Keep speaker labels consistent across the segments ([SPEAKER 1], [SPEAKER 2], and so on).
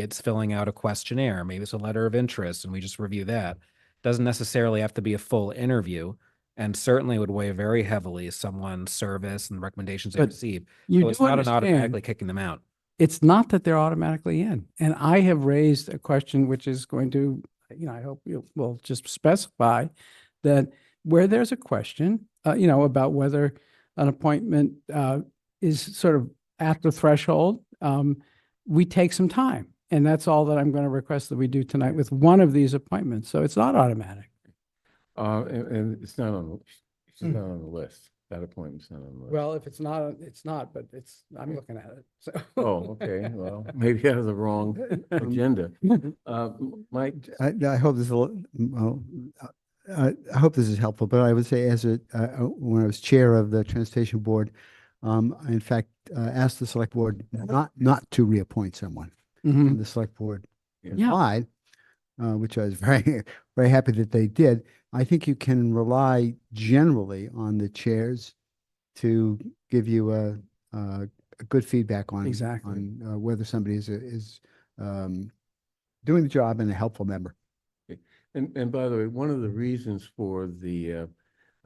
[SPEAKER 1] it's filling out a questionnaire, maybe it's a letter of interest, and we just review that. Doesn't necessarily have to be a full interview, and certainly would weigh very heavily someone's service and recommendations they
[SPEAKER 2] But
[SPEAKER 1] receive. So
[SPEAKER 2] You
[SPEAKER 1] it's
[SPEAKER 2] do
[SPEAKER 1] not an automatically
[SPEAKER 2] understand,
[SPEAKER 1] kicking them out.
[SPEAKER 2] it's not that they're automatically in. And I have raised a question which is going to, you know, I hope you will just specify that where there's a question, uh, you know, about whether an appointment, uh, is sort of at the threshold, um, we take some time. And that's all that I'm going to request that we do tonight with one of these appointments. So it's not automatic.
[SPEAKER 3] Uh, and, and it's not on, the- it's
[SPEAKER 2] Mm.
[SPEAKER 3] not on the list. That appointment's not on the list.
[SPEAKER 2] Well, if it's not, it's not, but it's, I'm looking at it. So.
[SPEAKER 3] Oh, okay, well, maybe I have the wrong
[SPEAKER 2] Um,
[SPEAKER 3] agenda. Uh, M- Mike,
[SPEAKER 4] I, I hope this will, well, uh, I, I hope this is helpful, but I would say as a, uh, uh, when I was chair of the transportation board, um, I in fact, uh, asked the select board not, not to reappoint someone.
[SPEAKER 2] Mhm.
[SPEAKER 4] And the select board
[SPEAKER 3] Yeah.
[SPEAKER 2] Yeah.
[SPEAKER 4] replied, uh, which I was very, very happy that they did. I think you can rely generally on the chairs to give you a, a a good feedback on.
[SPEAKER 2] Exactly.
[SPEAKER 4] On uh, whether somebody is, a- is, um, doing the job and a helpful member.
[SPEAKER 3] and, and by the way, one of the reasons for the, uh,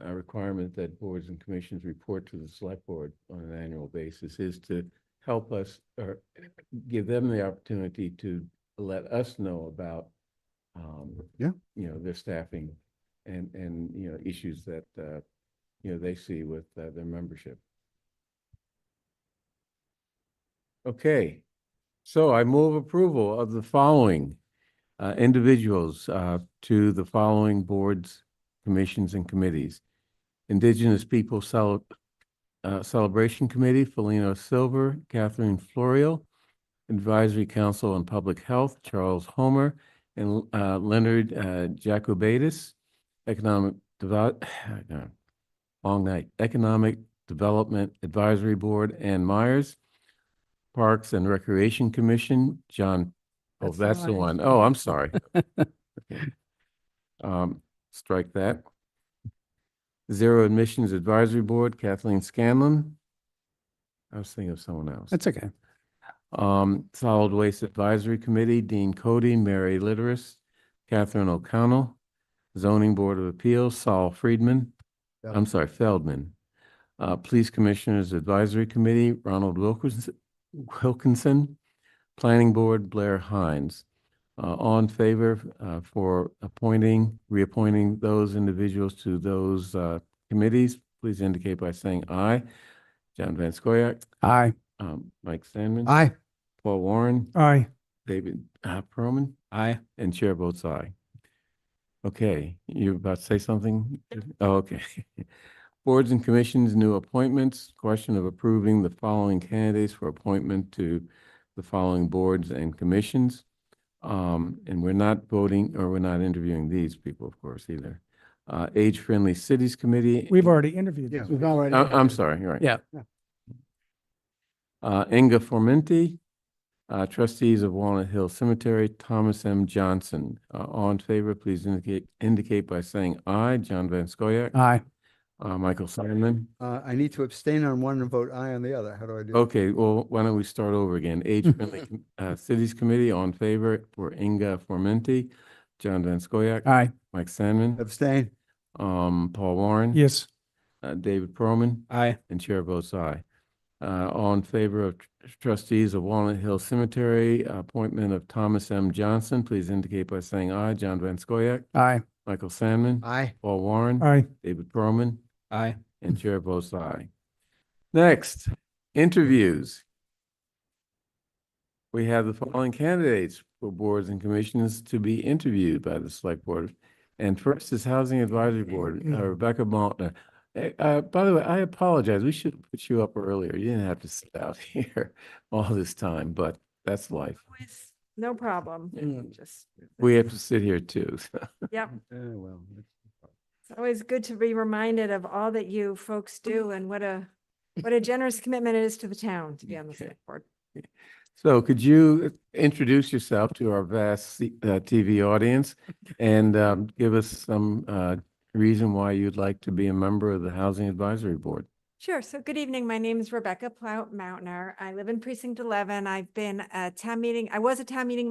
[SPEAKER 3] uh, requirement that boards and commissions report to the select board on an annual basis is to help us or give them the opportunity to let us know about, um,
[SPEAKER 4] Yeah.
[SPEAKER 3] you know, their staffing and, and, you know, issues that, uh, you know, they see with uh, their membership. Okay, so I move approval of the following uh, individuals uh, to the following boards, commissions, and committees. Indigenous Peoples Cel- uh, Celebration Committee, Felino Silver, Catherine Florio. Advisory Council on Public Health, Charles Homer, and uh, Leonard uh, Jacobatis. Economic Develop, long night, Economic Development Advisory Board, Ann Myers. Parks and Recreation Commission, John, oh,
[SPEAKER 2] That's the
[SPEAKER 3] that's the
[SPEAKER 2] one.
[SPEAKER 3] one. Oh, I'm sorry. Okay. Um, Strike that. Zero Admissions Advisory Board, Kathleen Scanlon. I was thinking of someone else.
[SPEAKER 2] That's okay.
[SPEAKER 3] Um, Solid Waste Advisory Committee, Dean Cody, Mary Litteris, Catherine O'Connell, Zoning Board of Appeals, Saul Friedman, I'm
[SPEAKER 4] Feldman.
[SPEAKER 3] sorry, Feldman. Uh, Police Commissioners Advisory Committee, Ronald Wilkinson, Wilkinson, Planning Board, Blair Hines. Uh, all in favor, uh, for appointing, reappointing those individuals to those, uh, committees, please indicate by saying aye. John Van Scoyac,
[SPEAKER 2] Aye.
[SPEAKER 3] um, Mike Sandman.
[SPEAKER 4] Aye.
[SPEAKER 3] Paul Warren,
[SPEAKER 2] Aye.
[SPEAKER 3] David uh, Perlman,
[SPEAKER 1] I
[SPEAKER 3] and Chair votes aye. Okay, you were about to say something? Oh, okay. Boards and commissions, new appointments, question of approving the following candidates for appointment to the following boards and commissions. Um, and we're not voting, or we're not interviewing these people, of course, either. Uh, Age Friendly Cities Committee.
[SPEAKER 5] We've already interviewed.
[SPEAKER 4] Yeah.
[SPEAKER 5] these.
[SPEAKER 2] We've already.
[SPEAKER 3] I- I'm sorry, you're right.
[SPEAKER 2] Yeah.
[SPEAKER 3] Uh, Inga Formenti, uh, trustees of Walnut Hill Cemetery, Thomas M. Johnson. Uh, all in favor, please indicate, indicate by saying aye. John Van Scoyac,
[SPEAKER 2] Aye.
[SPEAKER 3] uh, Michael Simon.
[SPEAKER 4] Uh, I need to abstain on one and vote aye on the other. How do I do? that?
[SPEAKER 3] Okay, well, why don't we start over again? Age Friendly, Com- uh, Cities Committee, all in favor for Inga Formenti, John Van Scoyac,
[SPEAKER 2] Aye.
[SPEAKER 3] Mike Sandman,
[SPEAKER 4] Abstain.
[SPEAKER 3] um, Paul Warren.
[SPEAKER 5] Yes,
[SPEAKER 3] Uh, David Perlman.
[SPEAKER 1] I
[SPEAKER 3] And chair votes aye. Uh, all in favor of tr- trustees of Walnut Hill Cemetery, appointment of Thomas M. Johnson, please indicate by saying aye. John Van Scoyac,
[SPEAKER 2] Aye.
[SPEAKER 3] Michael Sandman,
[SPEAKER 4] Aye.
[SPEAKER 3] Paul Warren,
[SPEAKER 5] aye.
[SPEAKER 3] David Perlman,
[SPEAKER 1] I
[SPEAKER 3] and chair votes aye. Next, interviews. We have the following candidates for boards and commissions to be interviewed by the select board. And first is Housing Advisory Board, uh, Rebecca Maltner. Eh, Uh, by the way, I apologize. We should have put you up earlier. You didn't have to sit out here all this time, but that's life.
[SPEAKER 6] Always, No problem.
[SPEAKER 3] Mm.
[SPEAKER 6] Just,
[SPEAKER 3] We have to sit here too.
[SPEAKER 6] yep.
[SPEAKER 4] Oh, well. that's-
[SPEAKER 6] It's always good to be reminded of all that you folks do and what a, what a generous commitment it is to the town to be on the
[SPEAKER 3] Okay.
[SPEAKER 6] select board.
[SPEAKER 3] So could you introduce yourself to our vast C- uh, TV audience and um, give us some uh, reason why you'd like to be a member of the Housing Advisory Board?
[SPEAKER 6] Sure. So good evening. My name is Rebecca Plout Mountner. I live in precinct eleven. I've been a town meeting, I was a town meeting